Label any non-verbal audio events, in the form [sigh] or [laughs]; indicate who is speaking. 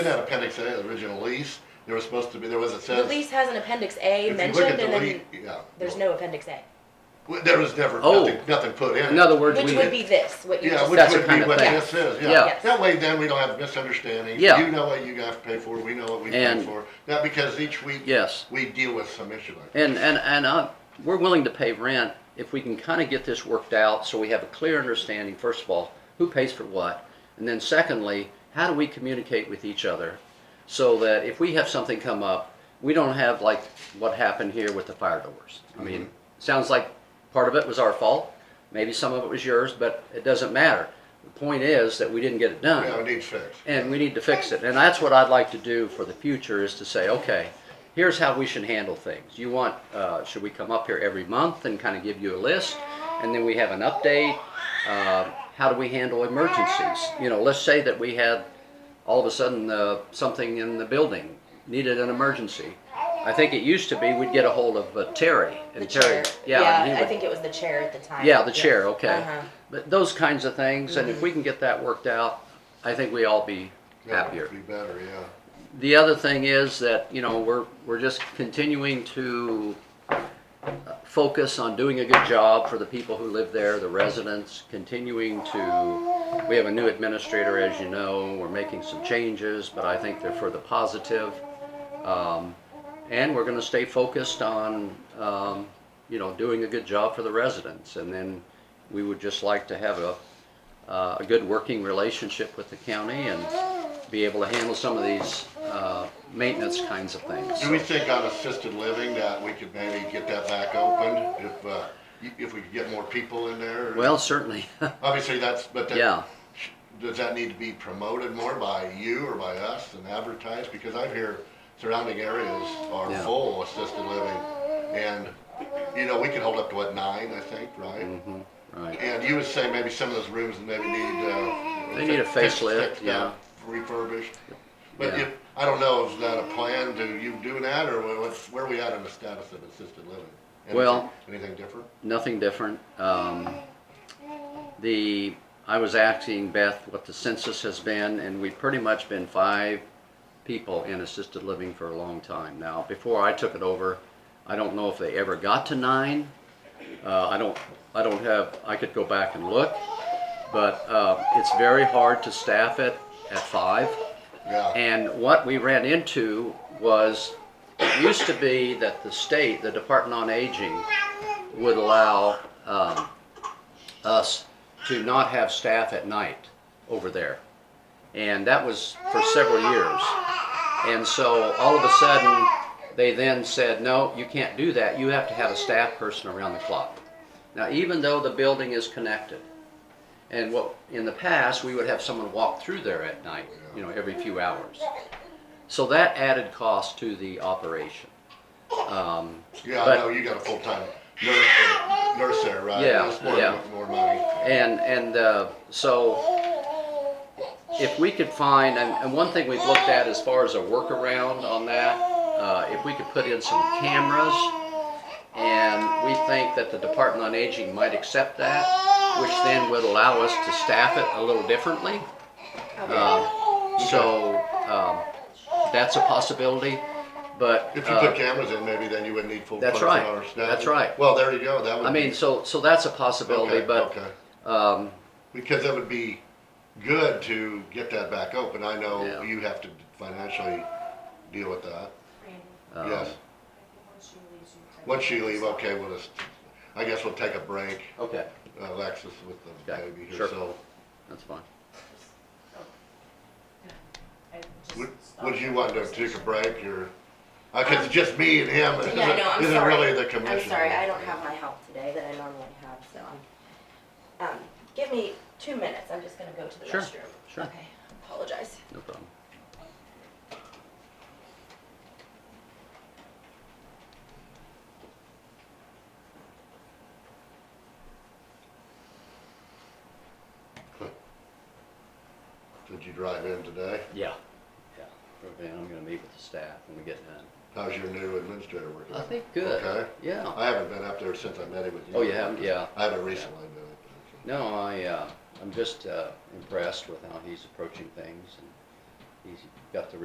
Speaker 1: It had appendix A, the original lease, there was supposed to be, there was, it
Speaker 2: The
Speaker 1: says.
Speaker 2: lease has an appendix
Speaker 1: if
Speaker 2: A
Speaker 1: you look at
Speaker 2: mentioned,
Speaker 1: the
Speaker 2: and
Speaker 1: lea-
Speaker 2: then
Speaker 1: Yeah.
Speaker 2: there's no appendix A,
Speaker 1: Well, There was never,
Speaker 3: Oh.
Speaker 1: nothing, nothing put in it.
Speaker 3: In other words,
Speaker 2: which
Speaker 3: we,
Speaker 2: would be this, what you
Speaker 1: Yeah,
Speaker 2: just
Speaker 1: which
Speaker 3: That's the
Speaker 1: would
Speaker 3: kind
Speaker 1: be
Speaker 3: of
Speaker 1: what
Speaker 3: thing.
Speaker 1: this is,
Speaker 3: Yeah.
Speaker 1: yeah.
Speaker 2: Yes.
Speaker 1: That way then we don't have misunderstandings.
Speaker 3: Yeah.
Speaker 1: You know what you have to pay for, we know what we pay
Speaker 3: And-
Speaker 1: for. Now, because each week,
Speaker 3: yes.
Speaker 1: we deal with some issue like that.
Speaker 3: And, and, and uh, we're willing to pay rent if we can kind of get this worked out so we have a clear understanding, first of all, who pays for what? And then secondly, how do we communicate with each other so that if we have something come up, we don't have like what happened here with the fire doors? I mean, sounds like part of it was our fault, maybe some of it was yours, but it doesn't matter. The point is that we didn't get it done
Speaker 1: Yeah, it needs fixed.
Speaker 3: and we need to fix it. And that's what I'd like to do for the future is to say, okay, here's how we should handle things. You want, uh, should we come up here every month and kind of give you a list? And then we have an update. Uh, how do we handle emergencies? You know, let's say that we had all of a sudden uh, something in the building needed an emergency. I think it used to be we'd get a hold of uh, Terry and
Speaker 2: the
Speaker 3: Terry.
Speaker 2: chair.
Speaker 3: Yeah, and he
Speaker 2: I
Speaker 3: would-
Speaker 2: think it was the chair at the time.
Speaker 3: yeah, the chair,
Speaker 2: Yes.
Speaker 3: okay.
Speaker 2: Uh-huh.
Speaker 3: But those kinds of things, and if we can get that worked out, I think we all be
Speaker 1: Yeah,
Speaker 3: happier.
Speaker 1: Be better, yeah.
Speaker 3: The other thing is that, you know, we're, we're just continuing to uh, focus on doing a good job for the people who live there, the residents, continuing to, we have a new administrator, as you know, we're making some changes, but I think they're for the positive. Um, and we're gonna stay focused on, um, you know, doing a good job for the residents. And then we would just like to have a, uh, a good working relationship with the county and be able to handle some of these uh, maintenance kinds of things.
Speaker 1: Do we think on assisted living that we could maybe get that back open if, uh, y- if we could get more people in there?
Speaker 3: Well, certainly, [laughs]
Speaker 1: Obviously, that's, but that.
Speaker 3: yeah.
Speaker 1: Does that need to be promoted more by you or by us and advertised? Because I hear surrounding areas are
Speaker 3: Yeah.
Speaker 1: full assisted living. And, you know, we can hold up to what, nine, I think, right?
Speaker 3: hmm right.
Speaker 1: And you would say maybe some of those rooms maybe need, uh.
Speaker 3: They need a
Speaker 1: fi- fixed-
Speaker 3: facelift,
Speaker 1: fixed up, Refurbished. But
Speaker 3: Yeah.
Speaker 1: if, I don't know, is that a plan? Do you do that or what's, where are we at in the status of assisted living? Anything-
Speaker 3: Well-
Speaker 1: Anything different?
Speaker 3: Nothing different. Um, the I was asking Beth what the census has been, and we've pretty much been five people in assisted living for a long time now. Before I took it over, I don't know if they ever got to nine. Uh, I don't. I don't have. I could go back and look, but uh, it's very hard to staff it at five.
Speaker 1: Yeah,
Speaker 3: And what we ran into was, it used to be that the state, the Department on Aging, would allow um, us to not have staff at night over there. And that was for several years. And so all of a sudden, they then said, no, you can't do that. You have to have a staff person around the clock. Now, even though the building is connected, and what, in the past, we would have someone walk through there at night, you know, every few hours. So that added cost to the operation. Um,
Speaker 1: yeah, I
Speaker 3: but-
Speaker 1: know you got a full-time nurse, uh, nurse there, right?
Speaker 3: Yeah,
Speaker 1: That's more-
Speaker 3: yeah.
Speaker 1: More money.
Speaker 3: and, and, uh, so if we could find, and, and one thing we've looked at as far as a workaround on that, uh, if we could put in some cameras, and we think that the Department on Aging might accept that, which then would allow us to staff it a little differently. Um,
Speaker 1: Oh.
Speaker 3: so, um, that's a possibility, but.
Speaker 1: If you
Speaker 3: uh,
Speaker 1: put cameras in, maybe then you wouldn't need full
Speaker 3: That's
Speaker 1: person
Speaker 3: right.
Speaker 1: or staff.
Speaker 3: That's right.
Speaker 1: Well, there you go, that would.
Speaker 3: I mean,
Speaker 1: be-
Speaker 3: so, so that's a
Speaker 1: okay,
Speaker 3: possibility, but,
Speaker 1: okay.
Speaker 3: um,
Speaker 1: Because that would be good to get that back open, I know
Speaker 3: Yeah.
Speaker 1: you have to financially deal with that,
Speaker 3: um,
Speaker 1: yes. Once you leave, okay, we'll just, I guess we'll take a break,
Speaker 3: Okay,
Speaker 1: uh, Alexis with the
Speaker 3: Okay,
Speaker 1: baby here,
Speaker 3: sure.
Speaker 1: so.
Speaker 3: that's fine.
Speaker 1: Would, would you want to take a break, or, uh, cause it's just me and him, it
Speaker 2: Um, Yeah, no,
Speaker 1: isn't,
Speaker 2: I'm
Speaker 1: isn't
Speaker 2: sorry.
Speaker 1: really the commission.
Speaker 2: I'm sorry, I don't have my help today that I normally have, so I'm, um, give me two minutes, I'm just gonna go to the
Speaker 3: Sure,
Speaker 2: restroom.
Speaker 3: sure.
Speaker 2: Okay, apologize.
Speaker 3: No problem.
Speaker 1: Did you drive in today?
Speaker 3: Yeah. Yeah. Okay, I'm gonna meet with the staff when we get done.
Speaker 1: How's your new administrator working?
Speaker 3: I think good.
Speaker 1: Okay.
Speaker 3: Yeah.
Speaker 1: I haven't been up there since I met him with you.
Speaker 3: Oh, you haven't? Yeah.
Speaker 1: I haven't recently been up
Speaker 3: No, I, uh, I'm just, uh, impressed with how he's approaching things and he's got the